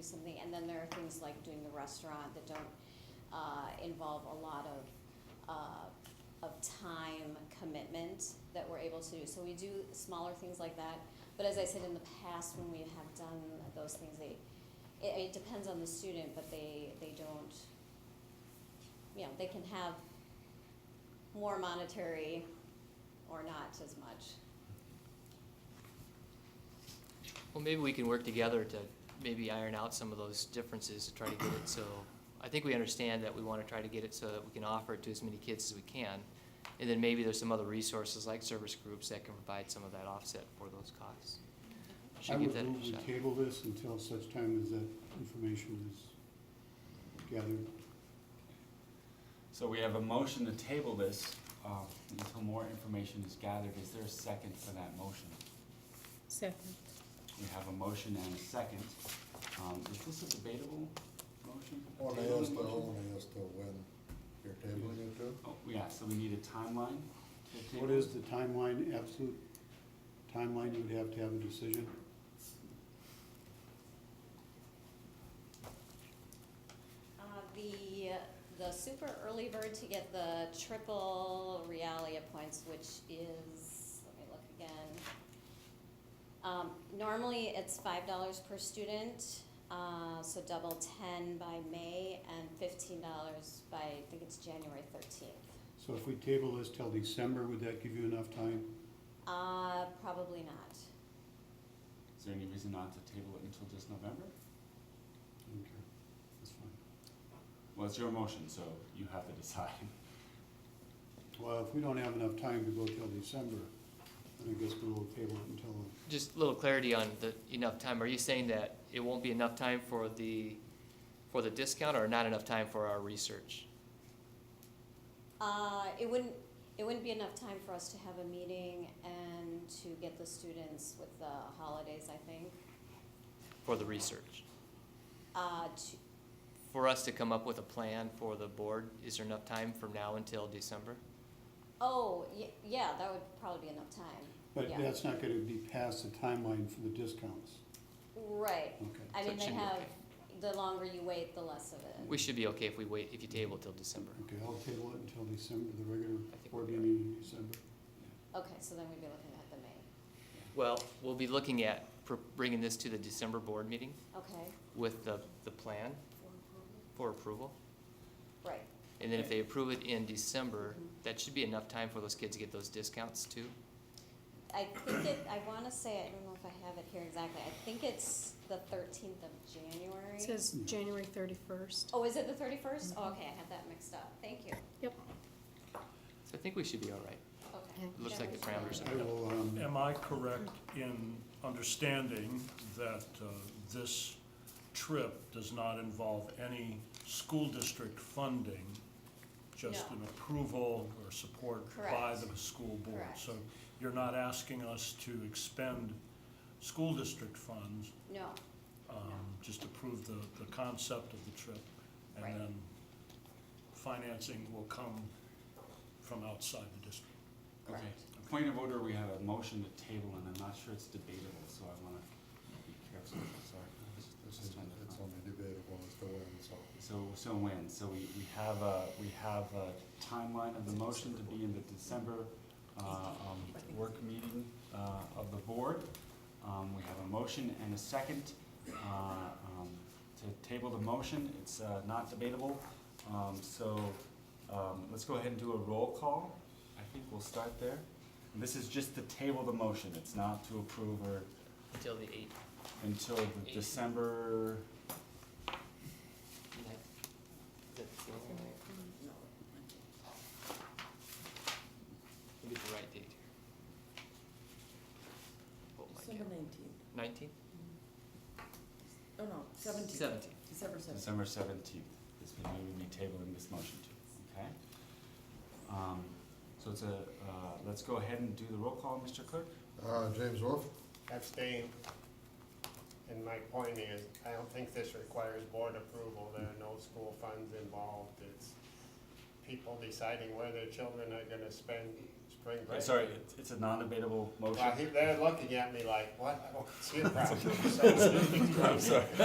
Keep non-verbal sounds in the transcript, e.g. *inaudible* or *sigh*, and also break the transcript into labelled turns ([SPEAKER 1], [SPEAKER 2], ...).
[SPEAKER 1] something, and then there are things like doing the restaurant that don't, uh, involve a lot of, uh, of time commitment that we're able to do. So we do smaller things like that, but as I said, in the past, when we have done those things, they, it, it depends on the student, but they, they don't, you know, they can have more monetary or not as much.
[SPEAKER 2] Well, maybe we can work together to maybe iron out some of those differences to try to get it so, I think we understand that we want to try to get it so that we can offer it to as many kids as we can. And then maybe there's some other resources like service groups that can provide some of that offset for those costs.
[SPEAKER 3] I
[SPEAKER 2] Should give
[SPEAKER 3] would
[SPEAKER 2] that
[SPEAKER 3] move
[SPEAKER 2] a
[SPEAKER 3] we
[SPEAKER 2] shot.
[SPEAKER 3] table this until such time as that information is gathered.
[SPEAKER 4] So we have a motion to table this uh, until more information is gathered. Is there a second for that motion?
[SPEAKER 5] Second.
[SPEAKER 4] We have a motion and a second. Um, Is this a debatable motion? A
[SPEAKER 3] Oh,
[SPEAKER 6] Only
[SPEAKER 4] tabled
[SPEAKER 6] as to,
[SPEAKER 4] motion?
[SPEAKER 6] only as to when you're tabling it to?
[SPEAKER 4] Oh, yeah, so we need a timeline to table?
[SPEAKER 3] What is the timeline, absolute timeline you would have to have a decision?
[SPEAKER 1] Uh, the, the super early bird to get the triple Realia points, which is, let me look again. Um, normally, it's five dollars per student, uh, so double ten by May and fifteen dollars by, I think it's January thirteenth.
[SPEAKER 3] So if we table this till December, would that give you enough time?
[SPEAKER 1] Uh, probably not.
[SPEAKER 4] Is there any reason not to table it until just November?
[SPEAKER 3] Okay, that's fine.
[SPEAKER 4] Well, it's your motion, so you have to decide. *laughs*
[SPEAKER 3] Well, if we don't have enough time to go till December, then I guess we'll table it until,
[SPEAKER 2] Just a little clarity on the enough time. Are you saying that it won't be enough time for the, for the discount or not enough time for our research?
[SPEAKER 1] Uh, it wouldn't, it wouldn't be enough time for us to have a meeting and to get the students with the holidays, I think,
[SPEAKER 2] For the research?
[SPEAKER 1] uh, to,
[SPEAKER 2] For us to come up with a plan for the board, is there enough time from now until December?
[SPEAKER 1] Oh, y- yeah, that would probably be enough time.
[SPEAKER 3] but
[SPEAKER 1] Yeah.
[SPEAKER 3] that's not gonna be past the timeline for the discounts.
[SPEAKER 1] Right.
[SPEAKER 3] Okay.
[SPEAKER 1] I
[SPEAKER 2] So
[SPEAKER 1] mean,
[SPEAKER 2] it
[SPEAKER 1] they
[SPEAKER 2] should be
[SPEAKER 1] have,
[SPEAKER 2] okay.
[SPEAKER 1] the longer you wait, the less of it.
[SPEAKER 2] We should be okay if we wait, if you table till December.
[SPEAKER 3] Okay, I'll table it until December, the regular
[SPEAKER 2] I think
[SPEAKER 3] board
[SPEAKER 2] we're-
[SPEAKER 3] meeting in December.
[SPEAKER 1] Okay, so then we'd be looking at the May.
[SPEAKER 2] Well, we'll be looking at pr- bringing this to the December board meeting
[SPEAKER 1] Okay,
[SPEAKER 2] with the, the plan for approval.
[SPEAKER 1] right.
[SPEAKER 2] And then if they approve it in December,
[SPEAKER 1] Mhm.
[SPEAKER 2] that should be enough time for those kids to get those discounts too.
[SPEAKER 1] I think it, I wanna say, I don't know if I have it here exactly, I think it's the thirteenth of January.
[SPEAKER 5] It says January thirty-first.
[SPEAKER 1] Oh, is it the thirty-first? Oh, okay, I had that mixed up. Thank you.
[SPEAKER 2] So I think we should be all right.
[SPEAKER 1] Okay.
[SPEAKER 2] It looks like the
[SPEAKER 1] January
[SPEAKER 2] parameters
[SPEAKER 1] 31st.
[SPEAKER 2] are-
[SPEAKER 3] I will, um,
[SPEAKER 7] Am I correct in understanding that uh, this trip does not involve any school district funding, just
[SPEAKER 1] No.
[SPEAKER 7] an approval or support by
[SPEAKER 1] Correct.
[SPEAKER 7] the school board?
[SPEAKER 1] Correct.
[SPEAKER 7] So you're not asking us to expend school district funds,
[SPEAKER 1] No,
[SPEAKER 7] um, just approve the, the concept of the trip,
[SPEAKER 1] Right.
[SPEAKER 7] and then financing will come from outside the district.
[SPEAKER 4] Okay.
[SPEAKER 1] Correct.
[SPEAKER 4] Point of order, we have a motion to table, and I'm not sure it's debatable, so I want to be careful, sorry.
[SPEAKER 6] It's it's- it's only debatable as to when, so.
[SPEAKER 4] So, so when, so we, we have a, we have a timeline of the motion to be in the December, uh, um, work meeting, uh, of the board. Um, we have a motion and a second, uh, um, to table the motion, it's, uh, not debatable. Um, so, um, let's go ahead and do a roll call, I think we'll start there. And This is just to table the motion, it's not to approve or
[SPEAKER 2] Until the eighth.
[SPEAKER 4] until the
[SPEAKER 2] Eight.
[SPEAKER 4] December,
[SPEAKER 2] We'll get the right date here. Hold my
[SPEAKER 8] December
[SPEAKER 2] calendar.
[SPEAKER 8] nineteenth,
[SPEAKER 2] Nineteen?
[SPEAKER 8] oh no, seventeenth,
[SPEAKER 2] Seventeen.
[SPEAKER 8] December seventeenth.
[SPEAKER 4] December seventeenth is when we would be tabling this motion to, okay? Um, so it's a, uh, let's go ahead and do the roll call, Mr. Clerk.
[SPEAKER 6] Uh, James Wolf?
[SPEAKER 9] abstain. And my point is, I don't think this requires board approval, there are no school funds involved, it's people deciding where their children are gonna spend spring break.
[SPEAKER 4] Sorry, it's, it's a
[SPEAKER 9] Uh,
[SPEAKER 4] non-debatable motion.
[SPEAKER 9] Well, he- they're looking at me like, what, I don't see a problem.
[SPEAKER 4] *laughs*
[SPEAKER 9] So-
[SPEAKER 4] I'm sorry.